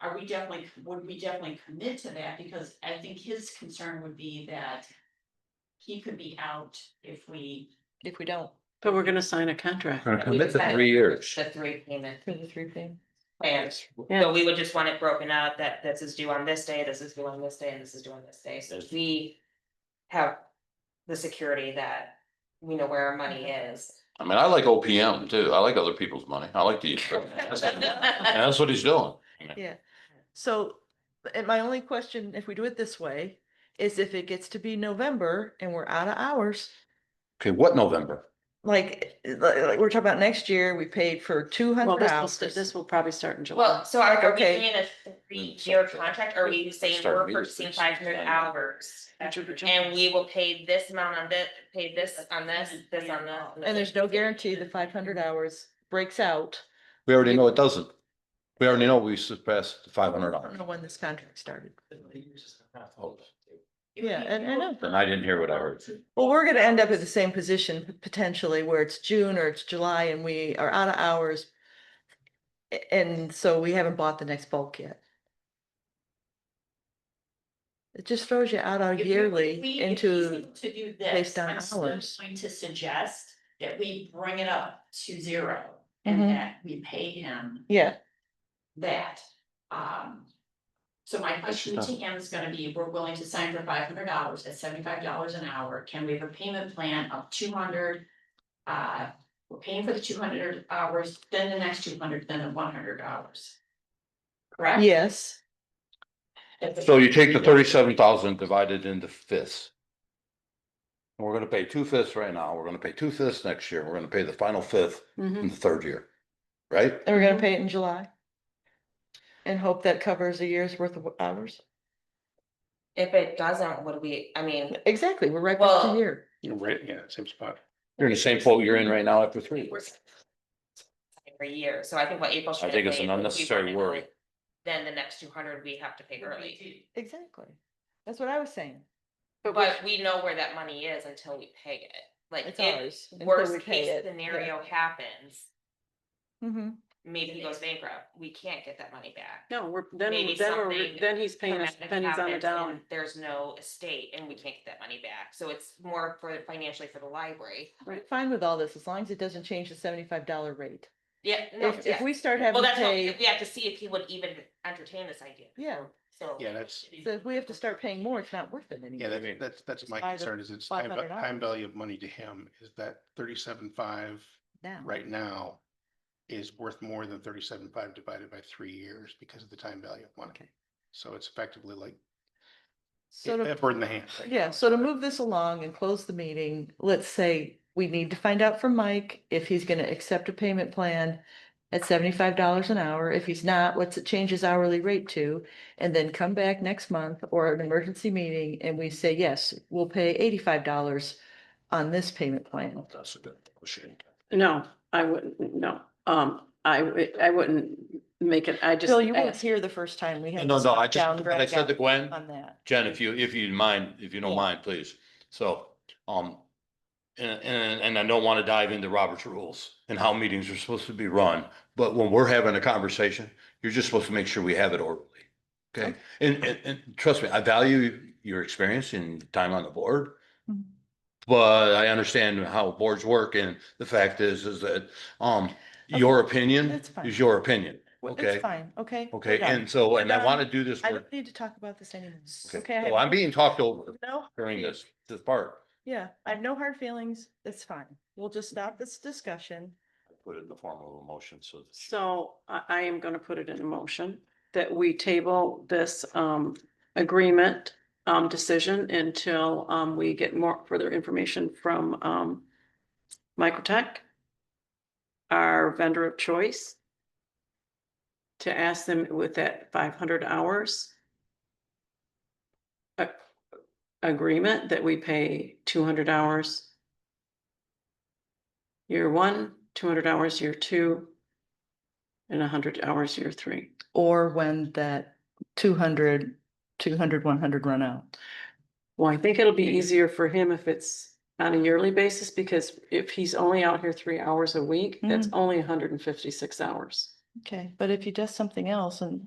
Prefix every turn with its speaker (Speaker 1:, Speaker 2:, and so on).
Speaker 1: are we definitely, would we definitely commit to that? Because I think his concern would be that he could be out if we.
Speaker 2: if we don't,
Speaker 3: But we're gonna sign a contract.
Speaker 4: Gonna commit to
Speaker 5: decided-
Speaker 4: three years.
Speaker 5: the three payment
Speaker 2: for the three thing.
Speaker 5: plans. So we would just want it broken out that this is due on this day, this is due on this day, and this is due on this day, so we have the security that we know where our money is.
Speaker 4: I mean, I like OPM too. I like other people's money. I like to use. And that's what he's doing.
Speaker 2: So, and my only question, if we do it this way, is if it gets to be November and we're out of hours.
Speaker 4: Okay, what November?
Speaker 2: Like, eh, like, like we're talking about next year, we paid for two
Speaker 3: Well,
Speaker 2: hundred
Speaker 3: this will,
Speaker 2: hours.
Speaker 3: st- this will probably start in July.
Speaker 5: Well, so are are we
Speaker 2: Okay.
Speaker 5: doing a three-year contract, or are we saying
Speaker 4: Start
Speaker 5: we're
Speaker 4: immediately.
Speaker 5: purchasing five hundred hours? And
Speaker 3: And
Speaker 5: we will pay this amount on this, pay this on this, this on this. this.
Speaker 2: And there's no guarantee the five hundred hours breaks out.
Speaker 4: We already know it doesn't. We already know we surpassed five hundred
Speaker 2: I don't
Speaker 4: dollars.
Speaker 2: know when this contract started.
Speaker 1: if we
Speaker 2: Yeah, and- and
Speaker 1: go-
Speaker 4: Then I didn't hear what I heard.
Speaker 2: Well, we're gonna end up at the same position p- potentially where it's June or it's July and we are out of hours. a- And so we haven't bought the next bulk yet. It just throws you out on
Speaker 1: If we- if we-
Speaker 2: yearly
Speaker 1: if he's
Speaker 2: into,
Speaker 1: able To do
Speaker 2: based
Speaker 1: this,
Speaker 2: on
Speaker 1: I'm still
Speaker 2: hours.
Speaker 1: going to suggest that we bring it up to zero and
Speaker 2: Mhm.
Speaker 1: that we pay him
Speaker 2: yeah,
Speaker 1: that. Um. So my question to
Speaker 4: done.
Speaker 1: him is gonna be, we're willing to sign for five hundred dollars at seventy-five dollars an hour. Can we have a payment plan of two hundred? Uh, we're paying for the two hundred hours, then the next two hundred, then the one hundred dollars. Correct?
Speaker 2: yes.
Speaker 1: That's-
Speaker 4: So you take the thirty-seven thousand divided into fifths. And we're gonna pay two fifths right now. We're gonna pay two fifths next year. We're gonna pay the final fifth
Speaker 3: Mm-hmm.
Speaker 4: in the third year. Right?
Speaker 2: And we're
Speaker 1: Mm-hmm.
Speaker 2: gonna pay it in July. And hope that covers a year's worth of hours.
Speaker 5: If it doesn't, would we, I mean,
Speaker 2: Exactly, we're right back to
Speaker 5: Well-
Speaker 2: here.
Speaker 6: You're right, yeah, same spot.
Speaker 4: You're in the same boat you're in right now after three.
Speaker 5: we're every year, so I think what April should.
Speaker 4: think it's
Speaker 5: say
Speaker 4: an
Speaker 5: is if we
Speaker 4: unnecessary
Speaker 5: want it
Speaker 4: worry.
Speaker 5: early, Then the next two hundred we have to pay early,
Speaker 2: Exactly. That's what I was saying.
Speaker 5: but we know where that money is until we pay it, like
Speaker 2: It's
Speaker 5: if
Speaker 2: ours. until we
Speaker 5: worst
Speaker 2: pay
Speaker 5: case
Speaker 2: it, yeah.
Speaker 5: scenario happens.
Speaker 2: Mhm.
Speaker 5: Maybe he goes bankrupt, we can't get that money back.
Speaker 3: No, we're, then,
Speaker 5: Maybe
Speaker 3: then we're,
Speaker 5: something
Speaker 3: then he's paying us
Speaker 5: Traumatic
Speaker 3: pennies on the
Speaker 5: happens and
Speaker 3: dollar.
Speaker 5: There's no estate and we can't get that money back, so it's more for financially for the library.
Speaker 2: I'm Fine with all this, as long as it doesn't change the seventy-five dollar rate.
Speaker 5: Yeah, no,
Speaker 2: If, if
Speaker 5: yeah.
Speaker 2: we start
Speaker 5: Well,
Speaker 2: having to
Speaker 5: that's, what-
Speaker 2: pay,
Speaker 5: we have to see if he would even entertain this idea.
Speaker 2: Yeah.
Speaker 5: So.
Speaker 6: Yeah, that's,
Speaker 2: so if we have to start paying more, it's not worth it anymore.
Speaker 6: yeah, that- that's, that's my
Speaker 2: Five-
Speaker 6: concern is it's time, va-
Speaker 2: 500
Speaker 6: time
Speaker 2: hours.
Speaker 6: value of money to him is that thirty-seven five
Speaker 2: Now.
Speaker 6: right now is worth more than thirty-seven five divided by three years because of the time value of money.
Speaker 3: Okay.
Speaker 6: So it's effectively like
Speaker 2: So
Speaker 6: a
Speaker 2: to
Speaker 6: a bird in the hand. right
Speaker 2: Yeah,
Speaker 6: now.
Speaker 2: so to move this along and close the meeting, let's say we need to find out from Mike if he's gonna accept a payment plan at seventy-five dollars an hour. If he's not, what's it change his hourly rate to? And then come back next month or an emergency meeting and we say, yes, we'll pay eighty-five dollars on this payment plan.
Speaker 4: That's a good question.
Speaker 3: No, I wouldn't, no, um, I, would- I wouldn't make it, I just.
Speaker 2: Bill, you weren't
Speaker 3: ask-
Speaker 2: here the first time we had.
Speaker 4: No,
Speaker 2: this
Speaker 4: no, I just,
Speaker 2: down,
Speaker 4: but I said to
Speaker 2: down
Speaker 4: Gwen,
Speaker 2: On that.
Speaker 4: Jen, if you, if you mind, if you don't
Speaker 2: Yeah.
Speaker 4: mind, please. So, um, and, and, and I don't want to dive into Robert's rules and how meetings are supposed to be run, but when we're having a conversation, you're just supposed to make sure we have it orderly. Okay? And, and, and trust me, I value your experience and time on the board.
Speaker 2: Mhm.
Speaker 4: But I understand how boards work and the fact is, is that, um, your opinion
Speaker 2: that's fine.
Speaker 4: is your opinion.
Speaker 2: Well,
Speaker 4: Okay.
Speaker 2: It's fine, okay? we're
Speaker 4: Okay?
Speaker 2: done.
Speaker 4: And so, and I
Speaker 2: done.
Speaker 4: want to do this
Speaker 2: um, I
Speaker 4: work.
Speaker 2: don't need to talk about this anymore. Okay. I
Speaker 4: Okay,
Speaker 2: have
Speaker 4: well, I'm
Speaker 2: no-
Speaker 4: being talked over
Speaker 2: No.
Speaker 4: during this, this part.
Speaker 2: Yeah, I have no hard feelings. It's fine. We'll just stop this discussion.
Speaker 4: Put it in the form of a motion, so. that she-
Speaker 3: So I, I am gonna put it in a motion that we table this, um, agreement, um, decision until, um, we get more further information from, um, Microtech, our vendor of choice, to ask them with that five hundred hours a- agreement that we pay two hundred hours year one, two hundred hours year two, and hundred hours year three.
Speaker 2: Or when that 200, 200, 100 run out.
Speaker 3: Well, I think it'll be easier for him if it's on a yearly basis, because if he's only out here three hours a week, that's only hundred and fifty-six hours.
Speaker 2: Okay, but if you does something else and